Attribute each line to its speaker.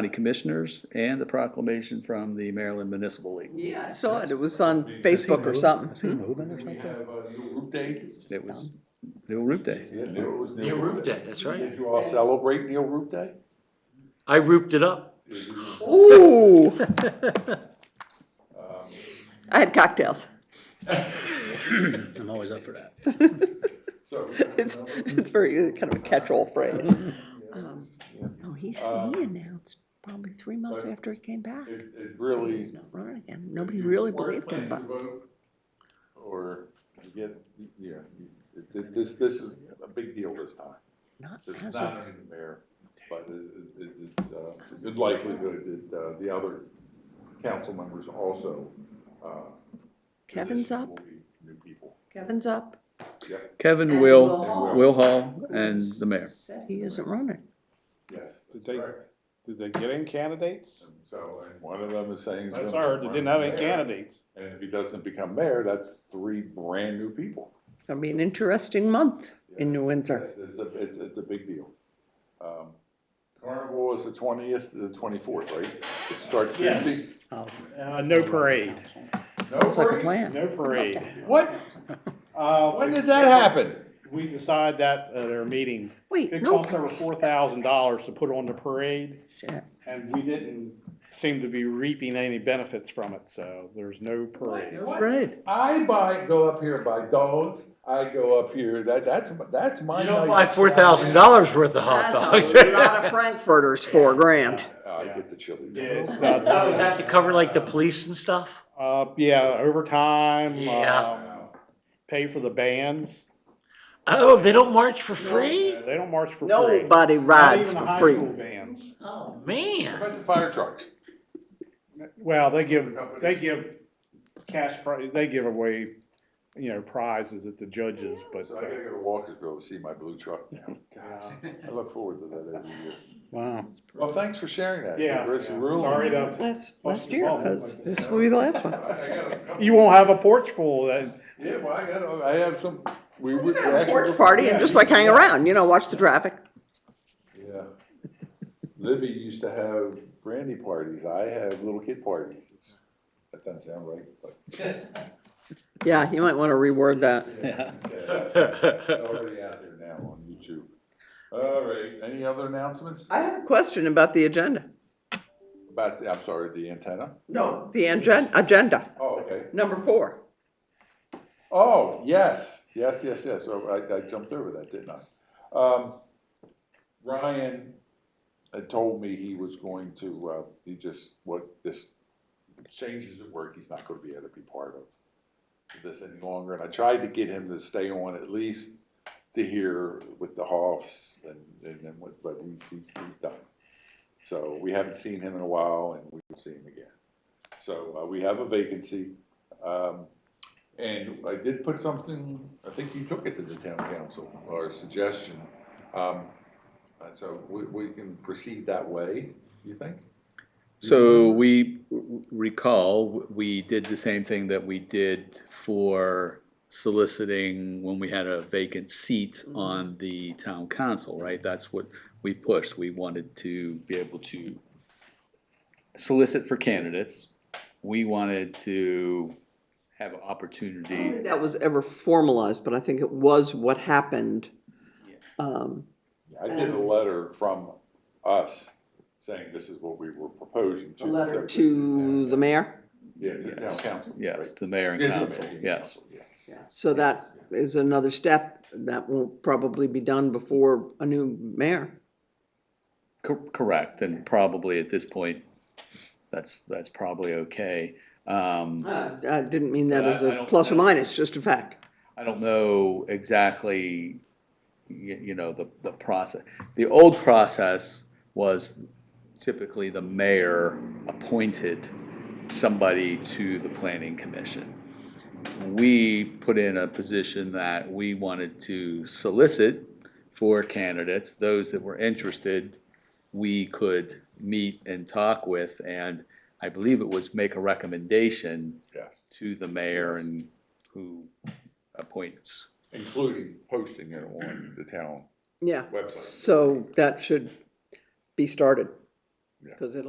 Speaker 1: County Commissioners and the proclamation from the Maryland Municipal League.
Speaker 2: Yeah, I saw it, it was on Facebook or something.
Speaker 3: moving or
Speaker 4: We have a new root Uh, day.
Speaker 1: It was New Root Day.
Speaker 4: Neil
Speaker 5: Neil Roop Day, that's right.
Speaker 4: Did you all celebrate Neil Root Day?
Speaker 5: I rooped it up.
Speaker 2: Ooh, I had cocktails.
Speaker 5: I'm always up for that.
Speaker 4: So,
Speaker 2: It's, it's very, uh, kind of a catch-all phrase. Um, No, he's, he announced probably three months after he came back.
Speaker 4: it, it
Speaker 2: He's
Speaker 4: really.
Speaker 2: not running again. Nobody
Speaker 4: if you
Speaker 2: really
Speaker 4: weren't
Speaker 2: believed him, but
Speaker 4: planning to vote, Or, you get, yeah, you- it- it- this, this is a big deal this time.
Speaker 2: not
Speaker 4: It's
Speaker 2: as
Speaker 4: not
Speaker 2: of,
Speaker 4: only the mayor, but it's, it's, it's uh, it's a good likelihood that, uh, the other council members also, uh.
Speaker 2: Kevin's
Speaker 4: position
Speaker 2: up.
Speaker 4: will be New people.
Speaker 2: Kevin's up.
Speaker 4: Yep,
Speaker 1: Kevin
Speaker 2: And
Speaker 1: Will,
Speaker 2: Will Hall.
Speaker 1: Will Hall, and the mayor.
Speaker 2: Said he isn't running.
Speaker 4: yes,
Speaker 3: Did
Speaker 4: that's
Speaker 3: they-
Speaker 4: correct.
Speaker 3: Did they get any candidates?
Speaker 4: And So, and one of them is saying. he's
Speaker 3: That's
Speaker 4: gonna
Speaker 3: hard, they
Speaker 4: run
Speaker 3: didn't
Speaker 4: for
Speaker 3: have any
Speaker 4: mayor.
Speaker 3: candidates.
Speaker 4: And if he doesn't become mayor, that's three brand new people.
Speaker 2: It's gonna be an interesting month in New Windsor.
Speaker 4: It's, it's a, it's, it's a big deal. Um, Carnival is the twentieth, the twenty-fourth, right? It starts
Speaker 3: Yes.
Speaker 4: Tuesday.
Speaker 3: Uh, no parade,
Speaker 4: No
Speaker 2: Oh, It's like a
Speaker 4: parade?
Speaker 2: plan.
Speaker 3: no parade.
Speaker 4: What?
Speaker 3: Uh,
Speaker 4: When did that happen?
Speaker 3: We decide that at our meeting.
Speaker 2: Wait,
Speaker 3: It
Speaker 2: no,
Speaker 3: cost over four thousand dollars to put on the parade,
Speaker 2: shit.
Speaker 3: and we didn't seem to be reaping any benefits from it, so there's no parade.
Speaker 5: Right.
Speaker 4: I buy, go up here and buy dogs, I go up here, that, that's, that's my.
Speaker 5: You don't
Speaker 4: night.
Speaker 5: buy four thousand dollars worth of hot dogs.
Speaker 2: That's a lot of Frankfurters, four grand.
Speaker 4: I get the chili.
Speaker 3: Yeah, it's not-
Speaker 5: Oh, is that to cover like the police and stuff?
Speaker 3: Uh, yeah, overtime,
Speaker 5: Yeah.
Speaker 3: um, pay for the bands.
Speaker 5: Oh, they don't march for free?
Speaker 3: They don't march for free.
Speaker 2: Nobody
Speaker 3: Not
Speaker 2: rides
Speaker 3: even
Speaker 2: for
Speaker 3: the high
Speaker 2: free.
Speaker 3: school bands.
Speaker 5: Oh,
Speaker 4: What
Speaker 5: man.
Speaker 4: about the fire trucks?
Speaker 3: Well, they give, they give cash, pri- they give away, you know, prizes at the judges, but.
Speaker 4: So I gotta go to Walkersville to see my blue truck now.
Speaker 3: uh,
Speaker 4: I look forward to that every year.
Speaker 3: Wow.
Speaker 4: Well, thanks for sharing that.
Speaker 3: Yeah,
Speaker 4: It's
Speaker 3: yeah.
Speaker 4: ruined.
Speaker 3: Sorry to-
Speaker 2: Last,
Speaker 3: Must
Speaker 2: last
Speaker 3: be
Speaker 2: year,
Speaker 3: wrong.
Speaker 2: because this will be the last one.
Speaker 4: I got a couple-
Speaker 3: You won't have a porch full then.
Speaker 4: Yeah, well, I got, I have some, we were.
Speaker 2: Porch party and just like hang around, you know, watch the traffic.
Speaker 4: Yeah. Libby used to have brandy parties, I have little kid parties. It's- That doesn't sound right, but.
Speaker 2: Yeah, you might want to reword that.
Speaker 4: It's already out there now on YouTube. All right, any other announcements?
Speaker 2: I have a question about the agenda.
Speaker 4: About, the- I'm sorry, the antenna?
Speaker 2: No, the agen- agenda,
Speaker 4: Oh, okay.
Speaker 2: number four.
Speaker 4: Oh, yes, yes, yes, yes. So I, I jumped over that, didn't I? Um, Ryan had told me he was going to, uh, he just, what, this changes at work, he's not gonna be able to be part of this any longer. And I tried to get him to stay on at least to hear with the Hoffs and, and then what, but he's, he's, he's done. So we haven't seen him in a while and we will see him again. So, uh, we have a vacancy. Um, and I did put something, I think you took it to the town council, or a suggestion. Um, and so we, we can proceed that way, you think?
Speaker 1: So we recall, we did the same thing that we did for soliciting when we had a vacant seat on the town council, right? That's what we pushed. We wanted to be able to solicit for candidates. We wanted to have an opportunity.
Speaker 2: That was ever formalized, but I think it was what happened. Um,
Speaker 4: I did a letter from us saying this is what we were proposing to.
Speaker 2: A letter to the mayor,
Speaker 4: Yeah, to the town
Speaker 1: Yes.
Speaker 4: council.
Speaker 1: Yes, the mayor and
Speaker 4: right? Yeah, the
Speaker 1: council,
Speaker 4: mayor and
Speaker 1: yes.
Speaker 4: council, yeah.
Speaker 2: so that is another step. That will probably be done before a new mayor.
Speaker 1: Cor- Correct, and probably at this point, that's, that's probably okay. Um,
Speaker 2: I didn't mean that
Speaker 1: But I-
Speaker 2: as
Speaker 1: I
Speaker 2: a
Speaker 1: don't-
Speaker 2: plus or minus, just a fact.
Speaker 1: I don't know exactly, you, you know, the, the process. The old process was typically the mayor appointed somebody to the planning commission. We put in a position that we wanted to solicit for candidates, those that were interested, we could meet and talk with, and I believe it was make a recommendation
Speaker 4: Yes.
Speaker 1: to the mayor and who appointments.
Speaker 4: Including posting it on the town
Speaker 2: Yeah.
Speaker 4: website.
Speaker 2: So that should be started.
Speaker 4: Yeah.
Speaker 2: Because it'll